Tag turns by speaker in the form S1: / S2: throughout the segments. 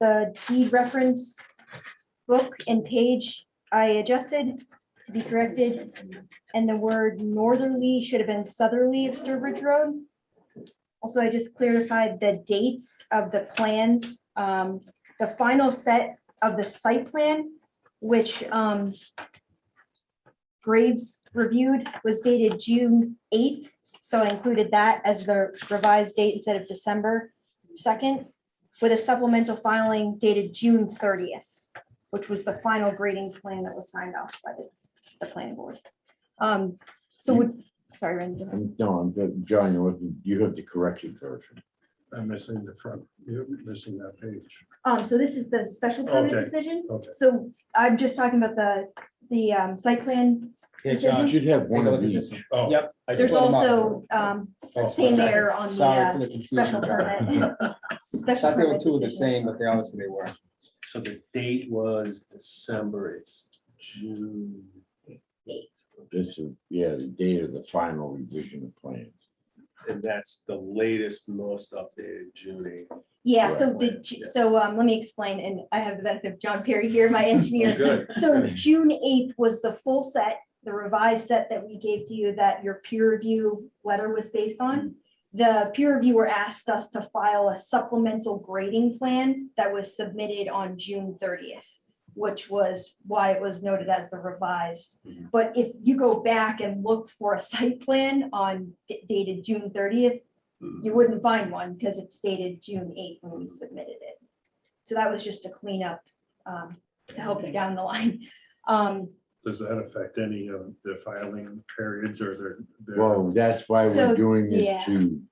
S1: the deed reference book and page I adjusted to be corrected. And the word northerly should have been southerly of Sturbridge Road. Also, I just clarified the dates of the plans, um, the final set of the site plan, which, um, Graves reviewed was dated June eighth, so I included that as the revised date instead of December second, with a supplemental filing dated June thirtieth, which was the final grading plan that was signed off by the, the planning board. Um, so would, sorry, Randy.
S2: I'm, no, I'm, good. John, you have- you have the corrected version.
S3: I'm missing the front, you're missing that page.
S1: Um, so this is the special permit
S3: Okay.
S1: decision.
S3: Okay.
S1: So I'm just talking about the, the, um, site plan.
S4: Yeah,
S1: Is it
S2: You
S4: John,
S2: should have
S4: um, take
S2: one
S4: a look
S2: of
S4: at this
S2: each.
S4: one.
S3: Oh,
S4: Yep. I
S1: There's
S4: split 'em up.
S1: also, um, same
S4: Oh, okay.
S1: error on the
S4: Sorry for
S1: uh,
S4: the
S1: special
S4: confusion, John.
S1: permit.
S4: I
S1: Special
S4: thought they were
S1: permit
S4: two of the
S1: decision.
S4: same, but they obviously they were.
S5: So the date was December, it's June.
S2: This is, yeah, the date of the final revision of plans.
S5: And that's the latest, most updated June eighth.
S1: Yeah, so
S5: Right,
S1: the,
S5: right,
S1: Ju-
S5: yeah.
S1: so, um, let me explain, and I have the benefit of John Perry here, my engineer.
S5: Good.
S1: So June eighth was the full set, the revised set that we gave to you that your peer review letter was based on. The peer reviewer asked us to file a supplemental grading plan that was submitted on June thirtieth, which was why it was noted as the revised.
S5: Mhm.
S1: But if you go back and look for a site plan on d- dated June thirtieth, you wouldn't find one because it's dated June eighth when we submitted it. So that was just to clean up, um, to help you down the line. Um,
S3: Does that affect any of the filing periods or their? their-
S2: Well, that's why
S1: So,
S2: we're doing
S1: yeah.
S2: this to.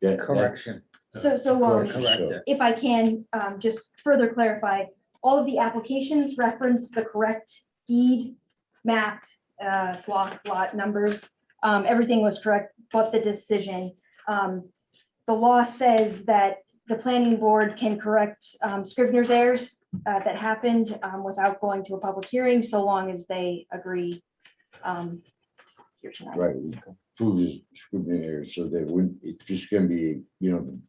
S2: that- that-
S4: Correction.
S1: so, so, um,
S2: correction,
S4: Correct.
S2: so-
S1: if I can, um, just further clarify, all of the applications reference the correct deed, map, uh, block, lot numbers. Um, everything was correct, but the decision, um, the law says that the planning board can correct, um, scrivener's errors uh, that happened, um, without going to a public hearing, so long as they agree. um, Here tonight.
S2: Right, we prove the scrutiny here, so that when, it's just gonna be, you know. the,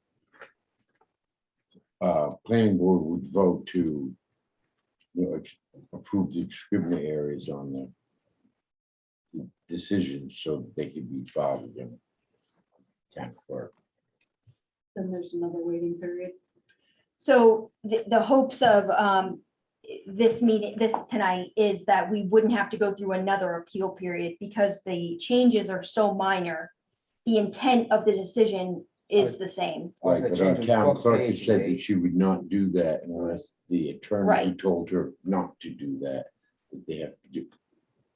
S2: Uh, planning board would vote to, you know, ex- approve the scrutiny areas on the. Decisions so that they can be filed with them. Town clerk,
S6: Then there's another waiting period.
S1: So the, the hopes of um, this meeting, this tonight, is that we wouldn't have to go through another appeal period because the changes are so minor. The intent of the decision is the same.
S4: Was
S2: like,
S4: that
S2: but our
S4: changing
S2: town
S4: book
S2: clerk has
S4: page,
S2: said that
S4: Dave?
S2: she would not do that unless the attorney
S1: Right.
S2: told her not to do that. That they have to do,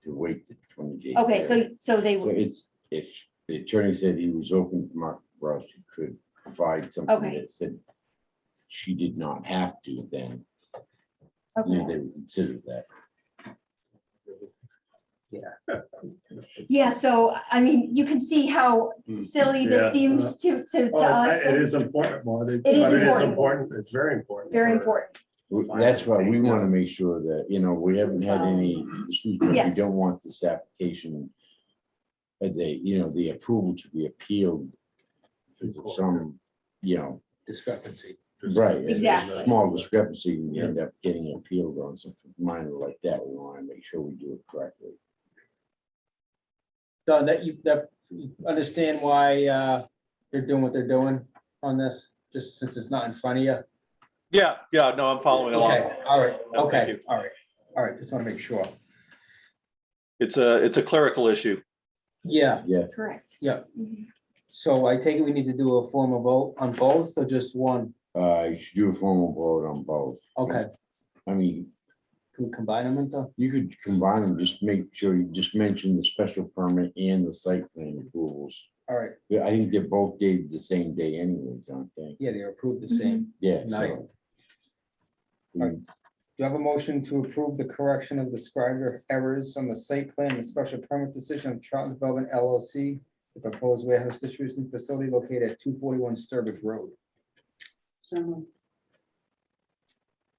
S2: to wait the twenty days.
S1: Okay, so, so they,
S2: So it's, if the attorney said he was open to Mark Ross, he could provide something
S1: Okay.
S2: that said she did not have to, then you know,
S1: okay.
S2: they would consider that.
S1: Yeah, so, I mean, you can see how
S5: Hmm,
S1: silly this
S3: yeah.
S1: seems to, to to
S3: Well,
S1: us.
S3: Oh, It is important, well, it
S1: It is
S3: but it is
S1: important.
S3: important, it's very important.
S1: Very
S3: for-
S1: important.
S2: W-
S5: Fine,
S2: That's why we
S5: thank
S2: want to
S5: you.
S2: make sure that, you know, we haven't had any, issues, but we
S1: Um, Yes.
S2: don't want this application. uh, the you know, the approval to be appealed because of some, you know,
S4: Discrepancy.
S2: Right. and there's a
S1: Exactly.
S2: Small discrepancy, and you end up getting appealed on something minor like that. We want to make sure we do it correctly.
S4: Don, that you, that, you understand why uh, they're doing what they're doing on this, just since it's not in front of you?
S5: Yeah, yeah, no, I'm following along.
S4: Okay, all right,
S5: No, thank
S4: okay,
S5: you.
S4: all right, all right, just want to make sure.
S5: It's a, it's a clerical issue.
S4: Yeah,
S2: Yeah,
S1: Correct.
S4: Yeah.
S1: Mhm.
S4: so I take it we need to do a formal vote on both or just one?
S2: Uh, you should do a formal vote on both.
S4: Okay,
S2: I mean,
S4: can we combine them into?
S2: you could combine them, just make sure you just mention the special permit and the site plan approvals.
S4: All right,
S2: Yeah, I think they're both dated the same day anyways, aren't they?
S4: yeah, they're approved
S1: Mm-hmm.
S4: the same.
S2: Yeah.
S4: Night.
S2: so, Mm.
S4: Alright. Do you have a motion to approve the correction of the scribed errors on the site plan and special permit decision of Charles Development LLC? The proposed warehouse distribution facility located at two forty-one Sturbridge Road.
S6: So moved.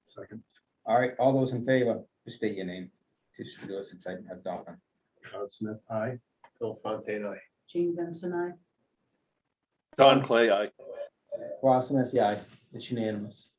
S3: Second,
S4: All right, all those in favor, just state your name. Just do it since I have Donna.
S3: Todd Smith, aye.
S5: Bill Fontaine, I.
S6: Jane Benson, I.
S5: Don Clay, I.
S4: Ross, and that's the aye. It's unanimous.